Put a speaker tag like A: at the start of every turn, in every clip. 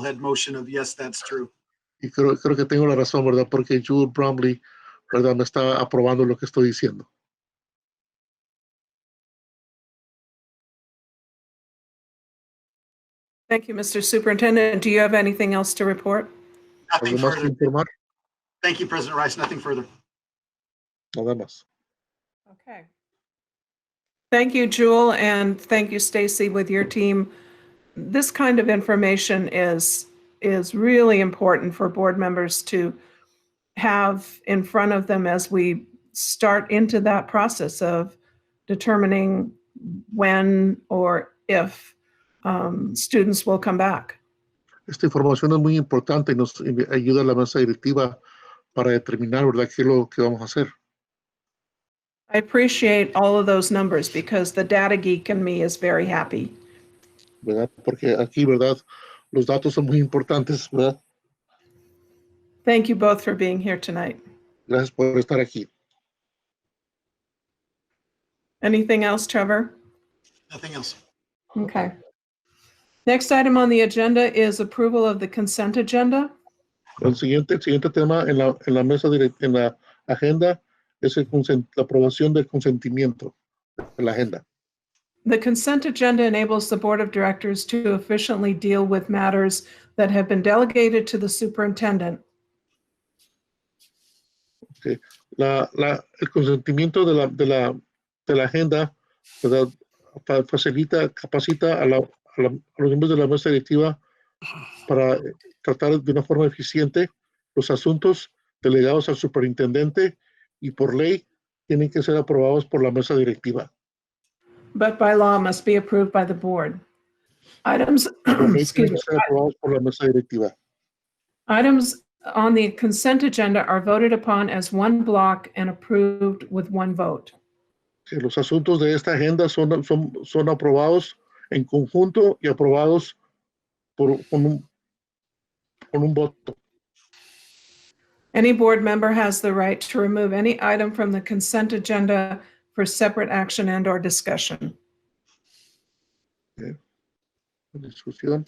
A: head motion of yes, that's true.
B: Y creo, creo que tengo la razón, ¿verdad? Porque Jude Bromley, ¿verdad? Me está aprobando lo que estoy diciendo.
C: Thank you, Mr. Superintendent. Do you have anything else to report?
A: Nothing
B: ¿Algo más que
A: further.
B: informar?
A: Thank you, President Rice. Nothing further.
B: Nada más.
C: Okay. Thank you, Jewel, and thank you, Stacy, with your team. This kind of information is, is really important for board members to have in front of them as we start into that process of determining when or if um, students will come back.
B: Esta información es muy importante y nos invi- ayuda a la mesa directiva para determinar, ¿verdad?, qué es lo que vamos a hacer.
C: I appreciate all of those numbers because the data geek in me is very happy.
B: ¿verdad? Porque aquí, ¿verdad? Los datos son muy importantes, ¿verdad?
C: Thank you both for being here tonight.
B: Gracias por estar aquí.
C: Anything else, Trevor?
A: Nothing else.
C: Okay. Next item on the agenda is approval of the consent agenda.
B: El siguiente, el siguiente tema en la, en la mesa, direc- en la agenda, es el consen- la aprobación del consentimiento de la agenda.
C: The consent agenda enables the Board of Directors to efficiently deal with matters that have been delegated to the superintendent.
B: La, la, el consentimiento de la, de la, de la agenda, ¿verdad? Fa- Facilita, capacita a, la- a la- a los miembros de la mesa directiva para eh, tratar de una forma eficiente los asuntos delegados al superintendente y por ley tienen que ser aprobados por la mesa directiva.
C: but by law must be approved by the board. Items,
B: Por ley
C: excuse
B: tienen
C: me,
B: que ser aprobados por la mesa directiva.
C: items on the consent agenda are voted upon as one block and approved with one vote.
B: Sí, los asuntos de esta agenda son, son, son aprobados en conjunto y aprobados por, con, un, con un voto.
C: Any board member has the right to remove any item from the consent agenda for separate action and/or discussion.
B: Discusión.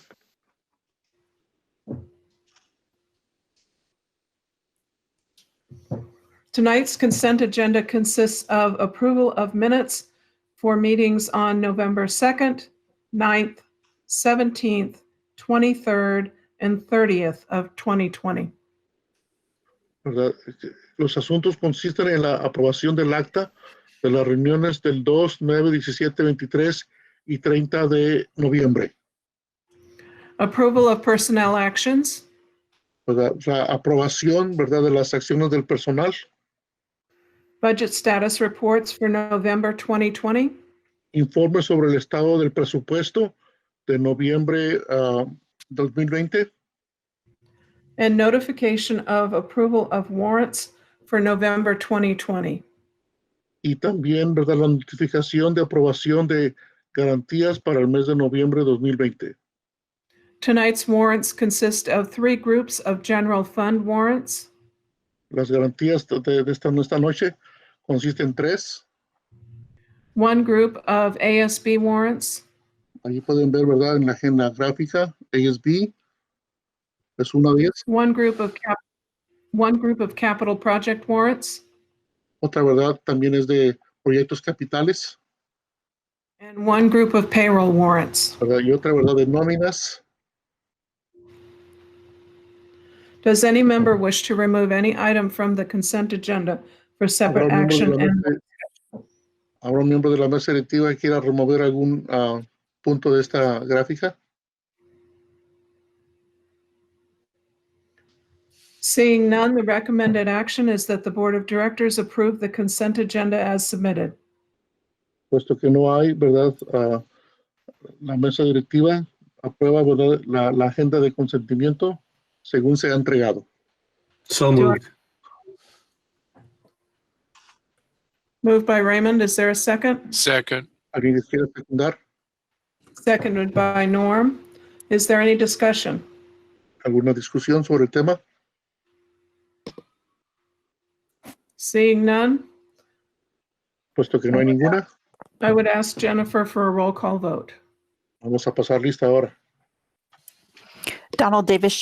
C: Tonight's consent agenda consists of approval of minutes for meetings on November 2nd, 9th, 17th, 23rd, and 30th of 2020.
B: ¿verdad? Este, Los asuntos consisten en la aprobación del acta de las reuniones del 2, 9, 17, 23 y 30 de noviembre.
C: Approval of personnel actions,
B: ¿verdad? La aprobación ¿verdad? de las acciones del personal
C: budget status reports for November 2020,
B: informe sobre el estado del presupuesto de noviembre ah, 2020,
C: and notification of approval of warrants for November 2020.
B: y también ¿verdad? la notificación de aprobación de garantías para el mes de noviembre 2020.
C: Tonight's warrants consist of three groups of general fund warrants,
B: Las garantías de, de esta, esta noche consisten en tres.
C: one group of ASB warrants,
B: Allí pueden ver, ¿verdad? En la agenda gráfica, ASB es una de ellas.
C: one group of cap, one group of capital project warrants,
B: Otra, ¿verdad? También es de proyectos capitales,
C: and one group of payroll warrants.
B: ¿verdad? Y otra, ¿verdad? De nóminas.
C: Does any member wish to remove any item from the consent agenda for
B: Habrá
C: separate
B: un miembro de
C: action
B: la
C: and
B: mesa- habrá un miembro de la mesa directiva que quiera remover algún ah, punto de esta gráfica.
C: Seeing none, the recommended action is that the Board of Directors approve the consent agenda as submitted.
B: Puesto que no hay, ¿verdad? Ah, la mesa directiva aprueba, ¿verdad? La, la agenda de consentimiento según se ha entregado.
D: So
C: Do I-
D: moved.
C: Moved by Raymond, is there a second?
E: Second,
B: ¿Alguien les quiere secundar?
C: Seconded by Norm. Is there any discussion?
B: ¿Alguna discusión sobre el tema?
C: Seeing none,
B: Puesto que no hay ninguna,
C: I would ask Jennifer for a roll call vote.
B: vamos a pasar lista ahora.
D: Donald Davis